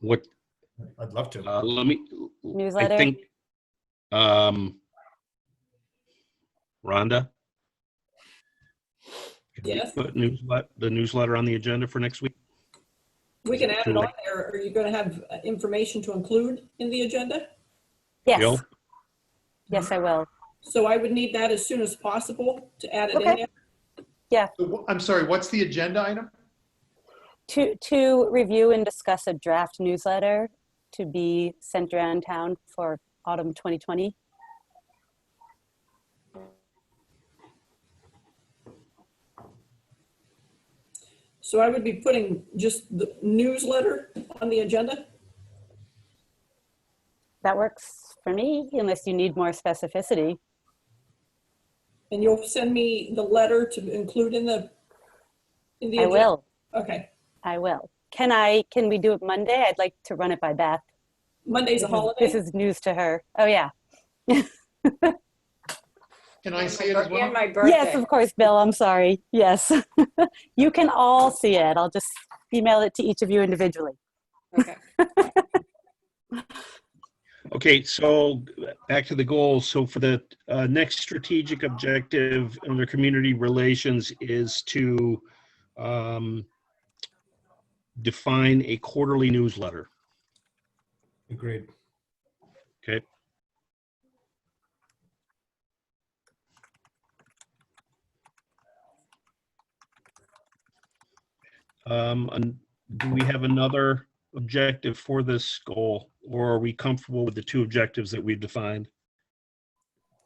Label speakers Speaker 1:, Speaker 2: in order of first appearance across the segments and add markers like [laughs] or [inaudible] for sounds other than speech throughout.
Speaker 1: What,
Speaker 2: I'd love to.
Speaker 1: uh, let me, I
Speaker 3: Newsletter?
Speaker 1: think, um, Rhonda? Can we
Speaker 4: Yes?
Speaker 1: Put newsletter, the newsletter on the agenda for next week?
Speaker 4: We can add it on there. Are you going to have uh, information to include in the agenda?
Speaker 1: Jill?
Speaker 3: Yes, yes, I will.
Speaker 4: So I would need that as soon as possible to add it in
Speaker 3: Okay.
Speaker 4: there.
Speaker 2: So wh- I'm sorry, what's the agenda item?
Speaker 3: To, to review and discuss a draft newsletter to be sent around town for autumn 2020.
Speaker 4: So I would be putting just the newsletter on the agenda.
Speaker 3: That works for me, unless you need more specificity.
Speaker 4: And you'll send me the letter to include in the, in the.
Speaker 3: I
Speaker 4: agenda?
Speaker 3: will,
Speaker 4: Okay.
Speaker 3: I will. Can I, can we do it Monday? I'd like to run it by Beth.
Speaker 4: Monday's a
Speaker 3: This is- This
Speaker 4: holiday.
Speaker 3: is news to her. Oh, yeah.
Speaker 2: Can I see it as well?
Speaker 5: And my
Speaker 3: Yes,
Speaker 5: birthday.
Speaker 3: of course, Bill, I'm sorry. Yes. [laughs] You can all see it. I'll just email it to each of you individually.
Speaker 5: Okay.
Speaker 1: Okay, so back to the goals. So for the uh, next strategic objective under community relations is to um, define a quarterly newsletter.
Speaker 2: Agreed.
Speaker 1: Okay. Um, and do we have another objective for this goal, or are we comfortable with the two objectives that we've defined?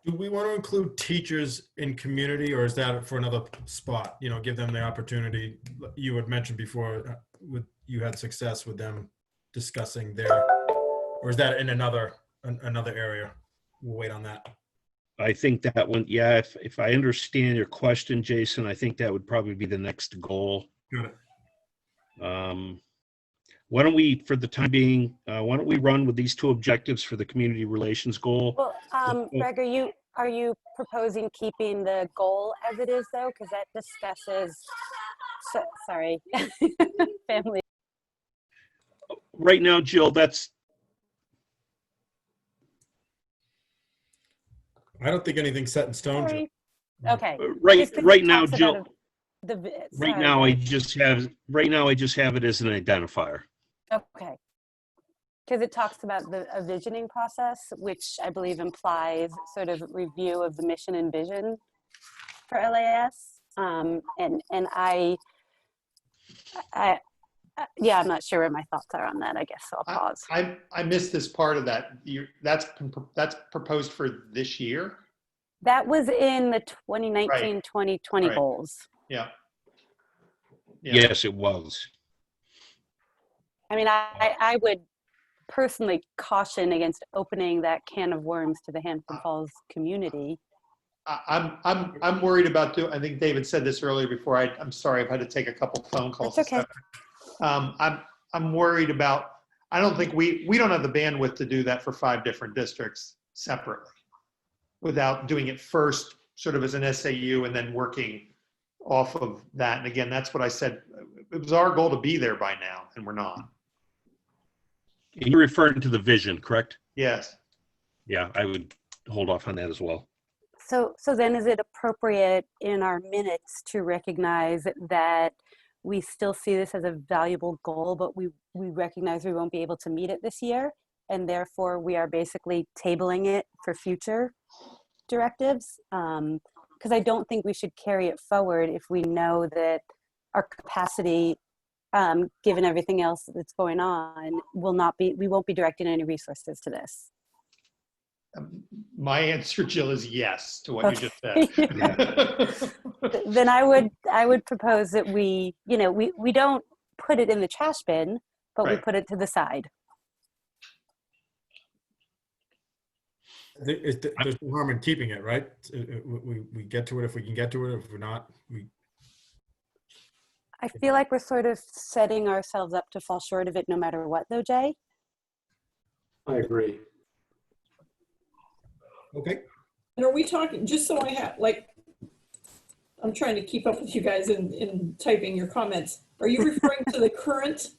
Speaker 2: Do we want to include teachers in community or is that for another spot? You know, give them the opportunity. You had mentioned before uh, with, you had success with them discussing their, or is that in another, an- another area? We'll wait on that.
Speaker 1: I think that one, yeah, if, if I understand your question, Jason, I think that would probably be the next goal.
Speaker 2: Got it.
Speaker 1: Um, Why don't we, for the time being, uh, why don't we run with these two objectives for the community relations goal?
Speaker 3: Well, um, Greg, are you, are you proposing keeping the goal as it is though? Because that discusses, so- sorry, [laughs] family.
Speaker 1: Right now, Jill, that's,
Speaker 2: I don't think anything's set in stone. Jim.
Speaker 3: Sorry. Okay.
Speaker 1: uh, right,
Speaker 3: Just 'cause it
Speaker 1: right now,
Speaker 3: talks about
Speaker 1: Jill,
Speaker 3: a- The, vi-
Speaker 1: right
Speaker 3: sorry,
Speaker 1: now, I
Speaker 3: Greg.
Speaker 1: just have, right now, I just have it as an identifier.
Speaker 3: Okay. Because it talks about the a visioning process, which I believe implies sort of review of the mission and vision for LAS. Um, and and I, I, I, yeah, I'm not sure where my thoughts are on that. I guess so I'll pause.
Speaker 6: I, I missed this part of that. You, that's, that's proposed for this year?
Speaker 3: That was in the 2019, 2020
Speaker 6: Right.
Speaker 3: goals.
Speaker 6: Yeah.
Speaker 1: Yes, it was.
Speaker 3: I mean, I, I- I would personally caution against opening that can of worms to the Hampton Falls community.
Speaker 6: I, I'm, I'm, I'm worried about do, I think David said this earlier before. I, I'm sorry, I've had to take a couple phone calls.
Speaker 3: That's okay.
Speaker 6: Um, I'm, I'm worried about, I don't think we, we don't have the bandwidth to do that for five different districts separately without doing it first, sort of as an SAU and then working off of that. And again, that's what I said. It was our goal to be there by now and we're not.
Speaker 1: And You're referring to the vision, correct?
Speaker 6: Yes.
Speaker 1: Yeah, I would hold off on that as well.
Speaker 3: So, so then is it appropriate in our minutes to recognize that we still see this as a valuable goal, but we, we recognize we won't be able to meet it this year? And therefore, we are basically tabling it for future directives? Because I don't think we should carry it forward if we know that our capacity, um, given everything else that's going on, will not be, we won't be directing any resources to this. [laughs]
Speaker 6: Um, My [laughs] answer, Jill, is yes to what you just said.
Speaker 3: [laughs]
Speaker 6: [laughs]
Speaker 3: th- then I would I would propose that we you know we we don't put it in the trash bin, but we
Speaker 6: Right.
Speaker 3: put it to the side.
Speaker 2: The- it- There's no harm in keeping it, right? It- it- We, we- we get to it if we can get to it. If we're not, we,
Speaker 3: I feel like we're sort of setting ourselves up to fall short of it no matter what though, Jay.
Speaker 7: I agree.
Speaker 2: okay.
Speaker 4: And are we talking, just so I have, like, I'm trying to keep up with you guys in, in typing your comments. Are you referring to the current